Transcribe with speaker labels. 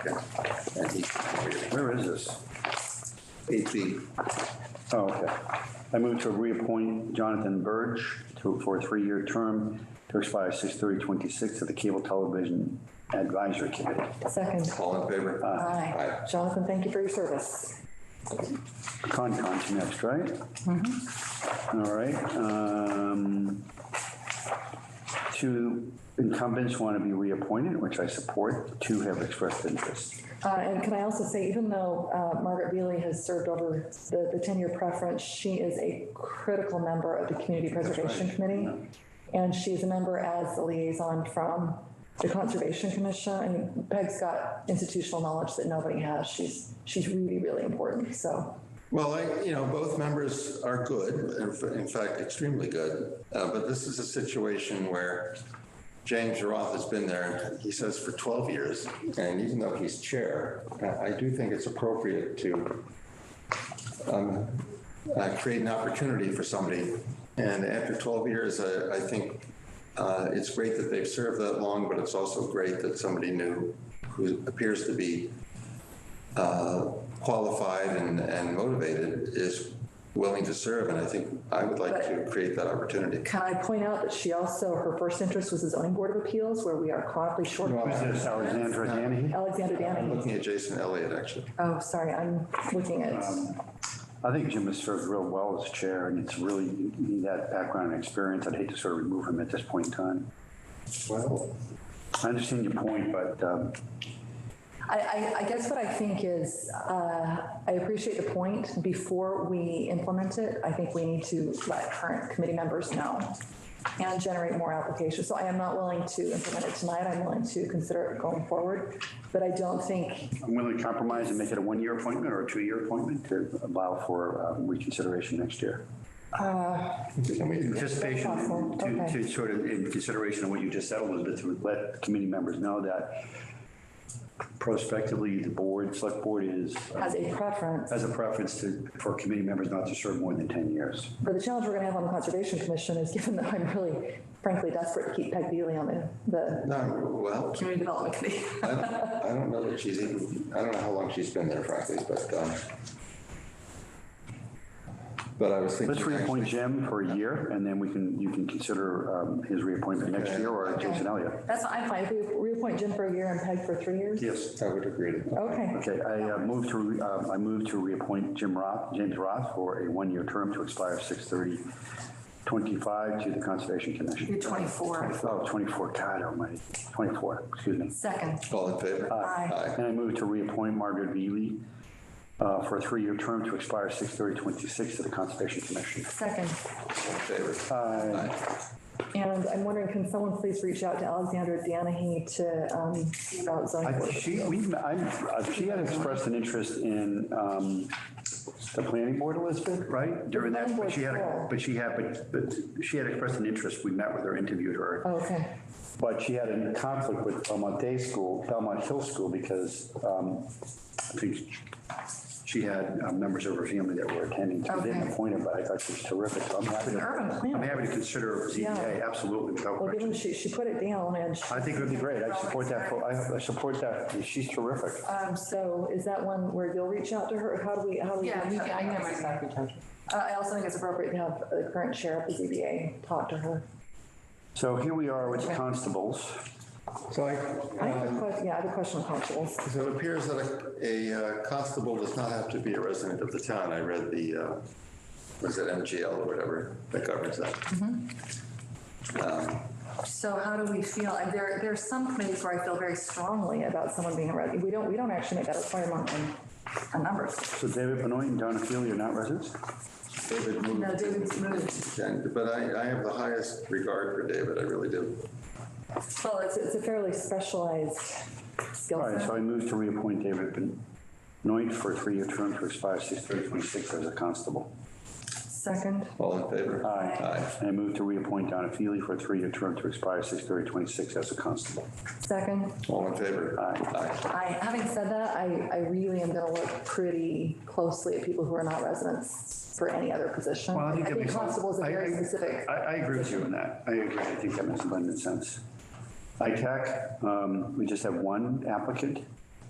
Speaker 1: Okay. And he, where is this? Eight B.
Speaker 2: Oh, okay. I move to reappoint Jonathan Burge to, for a three-year term to expire 6/30/26 to the Cable Television Advisory Committee.
Speaker 3: Second.
Speaker 1: All in favor?
Speaker 3: Aye. Jonathan, thank you for your service.
Speaker 2: Concom's next, right? All right. um, Two incumbents want to be reappointed, which I support. Two have expressed interest.
Speaker 3: Uh, And can I also say, even though uh, Margaret Beely has served over the the 10-year preference, she is a critical member of the Community Preservation Committee. And she's a member as a liaison from the Conservation Commission. And Peg's got institutional knowledge that nobody has. She's, she's really, really important, so.
Speaker 1: Well, I, you know, both members are good, in f- in fact, extremely good. Uh, But this is a situation where James Roth has been there, he says, for 12 years. And even though he's chair, I- I do think it's appropriate to um, uh, create an opportunity for somebody. And after 12 years, I, I think uh, it's great that they've served that long, but it's also great that somebody new who appears to be uh, qualified and, and motivated is willing to serve. And I think I would like to create that opportunity.
Speaker 3: Can I point out that she also, her first interest was the zoning board of appeals, where we are chronically short.
Speaker 2: Who's this, Alexandra Danahy?
Speaker 3: Alexander
Speaker 1: I'm
Speaker 3: Danny.
Speaker 1: looking at Jason Elliott, actually.
Speaker 3: Oh, sorry, I'm looking at,
Speaker 2: Um, I think Jim has served real well as chair, and it's really, you need that background and experience. I'd hate to sort of remove him at this point in time.
Speaker 1: Well,
Speaker 2: I understand your point, but um,
Speaker 3: I, I, I guess what I think is, uh, I appreciate the point. Before we implement it, I think we need to let current committee members know and generate more applications. So I am not willing to implement it tonight. I'm willing to consider it going forward. But I don't think
Speaker 2: I'm willing to compromise and make it a one-year appointment or a two-year appointment to allow for um, reconsideration next year.
Speaker 1: can we do that?
Speaker 2: Anticipation
Speaker 3: Awesome.
Speaker 2: to,
Speaker 3: Okay.
Speaker 2: to sort of, in consideration of what you just said, Elizabeth, to let committee members know that prospectively, the board, select board is,
Speaker 3: as a preference,
Speaker 2: has a preference to, for committee members not to serve more than 10 years.
Speaker 3: But the challenge we're going to have on the Conservation Commission is given that I'm really frankly desperate to keep Peg Beely on the, the
Speaker 1: No, well,
Speaker 3: Community Development Committee.
Speaker 1: I don't, I don't know that she's even, I don't know how long she's been there frankly, but, um, but I was thinking.
Speaker 2: Let's reappoint Jim for a year, and then we can, you can consider um, his reappointment next year or Jason Elliott.
Speaker 3: That's, I'm fine. If we reappoint Jim for a year and Peg for three years?
Speaker 2: Yes.
Speaker 1: I would agree to that.
Speaker 3: Okay.
Speaker 2: Okay, I uh, move to, re- um, I move to reappoint Jim Roth, James Roth, for a one-year term to expire 6/30/25 to the Conservation Commission.
Speaker 3: You're 24.
Speaker 2: Oh, 24, God almighty, 24, excuse me.
Speaker 3: Second.
Speaker 1: All in favor?
Speaker 3: Aye.
Speaker 2: And I move to reappoint Margaret Veely uh, for a three-year term to expire 6/30/26 to the Conservation Commission.
Speaker 3: Second.
Speaker 1: All in favor? Aye.
Speaker 3: And I'm wondering, can someone please reach out to Alexandra Danahy to, um, see about zoning?
Speaker 2: I-
Speaker 3: board?
Speaker 2: She, we, I, uh, she had expressed an interest in um, the planning board, Elizabeth, right? During that, but she had, a- but she had, but- but she had expressed an interest. We met with her, interviewed her.
Speaker 3: Oh, Okay.
Speaker 2: But she had a conflict with Belmont Day School, Belmont Hill School, because um, I think she had um, members of her family that were attending. So we didn't
Speaker 3: Okay.
Speaker 2: appoint her, but I thought she was terrific. So I'm happy
Speaker 3: Urban
Speaker 2: to,
Speaker 3: planning.
Speaker 2: I'm happy to consider ZBA,
Speaker 3: Yeah.
Speaker 2: absolutely, without
Speaker 3: Well, given
Speaker 2: question.
Speaker 3: she, she put it down and, she-
Speaker 2: I think it would be great. I support that. full- I I support that. She's terrific.
Speaker 3: um, so is that one where you'll reach out to her? How do we, how do we?
Speaker 4: Yeah, you can, I can have my secretary.
Speaker 3: Uh, I also think it's appropriate to have the current chair of the ZBA talk to her.
Speaker 2: So here we are with the constables.
Speaker 1: So
Speaker 3: I
Speaker 1: I,
Speaker 3: have a
Speaker 1: um,
Speaker 3: question, yeah, I have a question on constables.
Speaker 1: so it appears that a, a uh, constable does not have to be a resident of the town. I read the, uh, was it MGL or whatever that governs that. Um,
Speaker 3: So how do we feel, and there, there are some committees where I feel very strongly about someone being a resident, we don't, we don't actually make that requirement on, on numbers.
Speaker 2: So David Benoit and Donna Feely are not residents?
Speaker 1: David moved.
Speaker 3: No, David's moved.
Speaker 1: And- But I, I have the highest regard for David, I really do.
Speaker 3: Well, it's, it's a fairly specialized skill
Speaker 2: All right, so
Speaker 3: set.
Speaker 2: I move to reappoint David Benoit for a three-year term to expire 6/30/26 as a constable.
Speaker 3: Second,
Speaker 1: All in favor? Aye.
Speaker 2: And I move to reappoint Donna Feely for a three-year term to expire 6/30/26 as a constable.
Speaker 3: second,
Speaker 1: All in favor? Aye.
Speaker 3: I, having said that, I, I really am gonna look pretty closely at people who are not residents for any other position. I think constable is a very specific,
Speaker 2: I, I agree with you on that. I agree. I think that makes abundant sense. ITAC, um, we just have one applicant.